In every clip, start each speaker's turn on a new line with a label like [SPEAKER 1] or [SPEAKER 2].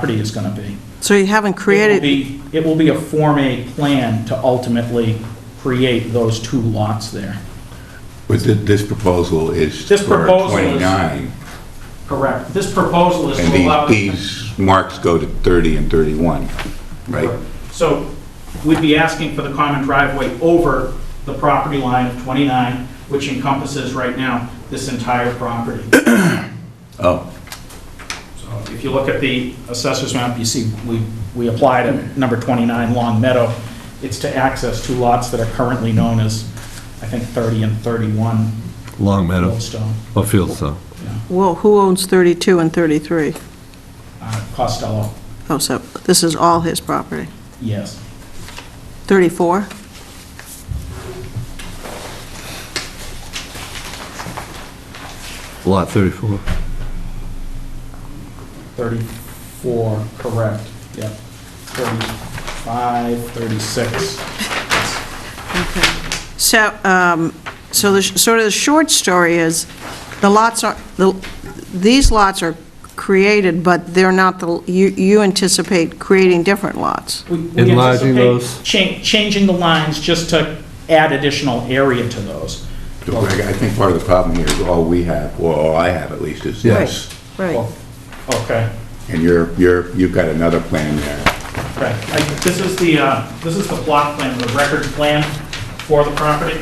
[SPEAKER 1] property is going to be.
[SPEAKER 2] So you haven't
[SPEAKER 1] It will
[SPEAKER 2] created,
[SPEAKER 1] be, it will be a Form A plan to ultimately create those two lots there.
[SPEAKER 3] But thi- this proposal is
[SPEAKER 1] This
[SPEAKER 3] for
[SPEAKER 1] proposal is-
[SPEAKER 3] 29,
[SPEAKER 1] Correct. This proposal is
[SPEAKER 3] and
[SPEAKER 1] to allow...
[SPEAKER 3] the- these marks go to 30 and 31, right?
[SPEAKER 1] So we'd be asking for the common driveway over the property line of 29, which encompasses right now this entire property.
[SPEAKER 3] Oh,
[SPEAKER 1] So If you look at the assessor's map, you see we, we applied at number 29 Long Meadow. It's to access two lots that are currently known as, I think, 30 and 31
[SPEAKER 4] Long Meadow,
[SPEAKER 1] Goldstone,
[SPEAKER 4] or Fieldstone.
[SPEAKER 2] well, who owns 32 and 33?
[SPEAKER 1] uh, Costello,
[SPEAKER 2] Oh, so this is all his property.
[SPEAKER 1] yes.
[SPEAKER 2] 34?
[SPEAKER 4] Lot 34.
[SPEAKER 1] 34, correct, yep. 35, 36.
[SPEAKER 2] So, um, so the, sh- sort of the short story is, the lots are, the these lots are created, but they're not the, you you anticipate creating different lots.
[SPEAKER 1] We- we
[SPEAKER 4] Enlarging
[SPEAKER 1] anticipate
[SPEAKER 4] those.
[SPEAKER 1] cha- Changing the lines just to add additional area to those.
[SPEAKER 3] so I I think part of the problem here is all we have, or all I have at least, is this.
[SPEAKER 2] Right.
[SPEAKER 1] Okay,
[SPEAKER 3] And you're, you're, you've got another plan there.
[SPEAKER 1] right. I- This is the, uh, this is the plot plan, the record plan for the property.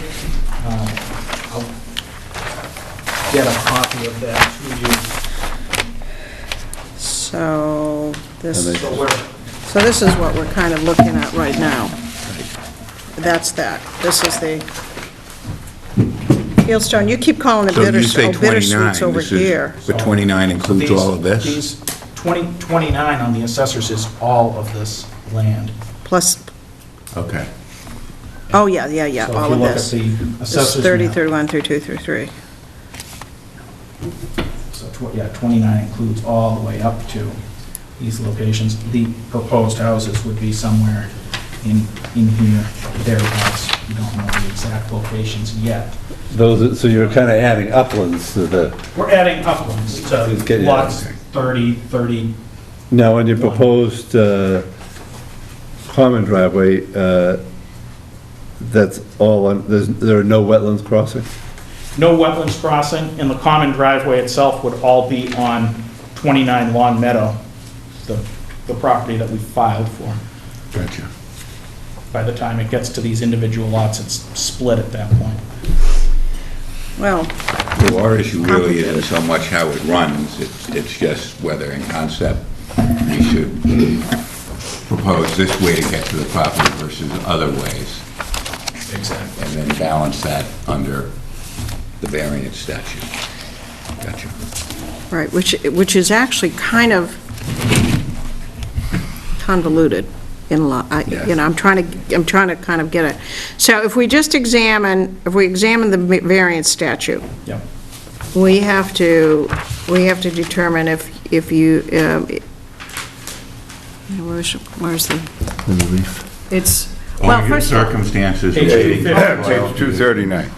[SPEAKER 1] Uh, I'll Get a copy of that to
[SPEAKER 2] So,
[SPEAKER 1] you.
[SPEAKER 2] this,
[SPEAKER 1] So we're,
[SPEAKER 2] so this is what we're kind of looking at right now. That's that. This is the, Fieldstone, you keep calling it
[SPEAKER 3] So you
[SPEAKER 2] bitters-
[SPEAKER 3] say
[SPEAKER 2] oh,
[SPEAKER 3] 29,
[SPEAKER 2] bittersweets over
[SPEAKER 3] this
[SPEAKER 2] here.
[SPEAKER 3] is, but 29 includes all of
[SPEAKER 1] These-
[SPEAKER 3] this?
[SPEAKER 1] These, 20, 29 on the assessors is all of this land.
[SPEAKER 2] Plus,
[SPEAKER 3] Okay.
[SPEAKER 2] oh, yeah, yeah, yeah, all of this.
[SPEAKER 1] So if you look at the
[SPEAKER 2] This
[SPEAKER 1] assessors
[SPEAKER 2] is 30,
[SPEAKER 1] map,
[SPEAKER 2] 31, 32, 33.
[SPEAKER 1] so tw- yeah, 29 includes all the way up to these locations. The proposed houses would be somewhere in, in here, thereabouts. We don't know the exact locations yet.
[SPEAKER 4] Those, so you're kind of adding uplands to the,
[SPEAKER 1] We're adding uplands to
[SPEAKER 4] Let's get it out.
[SPEAKER 1] lots 30, 30,
[SPEAKER 4] now, on your proposed uh, common driveway, uh, that's all, on- there's- there are no wetlands crossing?
[SPEAKER 1] no wetlands crossing, and the common driveway itself would all be on 29 Long Meadow, the, the property that we filed for.
[SPEAKER 3] Gotcha.
[SPEAKER 1] By the time it gets to these individual lots, it's split at that point.
[SPEAKER 2] Well,
[SPEAKER 3] Well, our issue really isn't so much how it runs, it's, it's just whether in concept we should propose this way to get to the property versus other ways,
[SPEAKER 1] Exactly.
[SPEAKER 3] and then balance that under the variance statute. Gotcha.
[SPEAKER 2] right, which, which is actually kind of convoluted in law, I- you know, I'm trying to, I'm trying to kind of get it. So if we just examine, if we examine the ma- variance statute,
[SPEAKER 1] Yep.
[SPEAKER 2] we have to, we have to determine if, if you, um, where's, where's the,
[SPEAKER 4] In the leaf.
[SPEAKER 2] it's, well,
[SPEAKER 3] Only in
[SPEAKER 2] first,
[SPEAKER 3] circumstances.
[SPEAKER 1] Page
[SPEAKER 3] shading
[SPEAKER 1] 250.
[SPEAKER 3] color,
[SPEAKER 5] Page 239.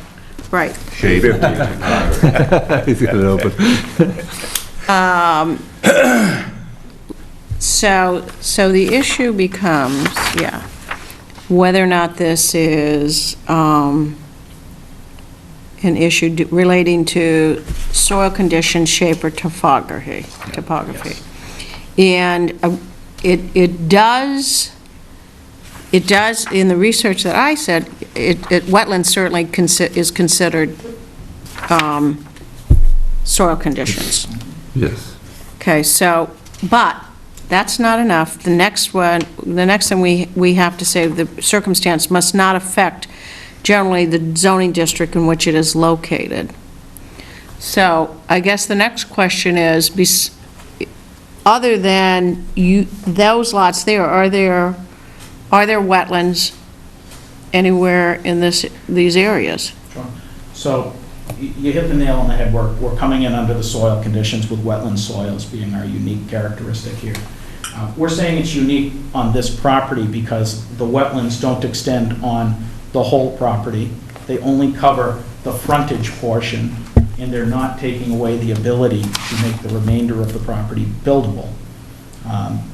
[SPEAKER 2] right.
[SPEAKER 3] Shading color.
[SPEAKER 4] He's got it open.
[SPEAKER 2] So, so the issue becomes, yeah, whether or not this is um, an issue d- relating to soil condition, shape, or topography, topography. And uh, it, it does, it does, in the research that I said, it, it- wetland certainly consi- is considered um, soil conditions.
[SPEAKER 4] Yes.
[SPEAKER 2] Okay, so, but, that's not enough. The next one, the next thing we, we have to say, the circumstance must not affect generally the zoning district in which it is located. So, I guess the next question is, bes- other than you, those lots there, are there, are there wetlands anywhere in this, these areas?
[SPEAKER 1] Sure. So y- you hit the nail on the head. We're, we're coming in under the soil conditions with wetland soils being our unique characteristic here. Uh, We're saying it's unique on this property because the wetlands don't extend on the whole property. They only cover the frontage portion, and they're not taking away the ability to make the remainder of the property buildable. Um, Um,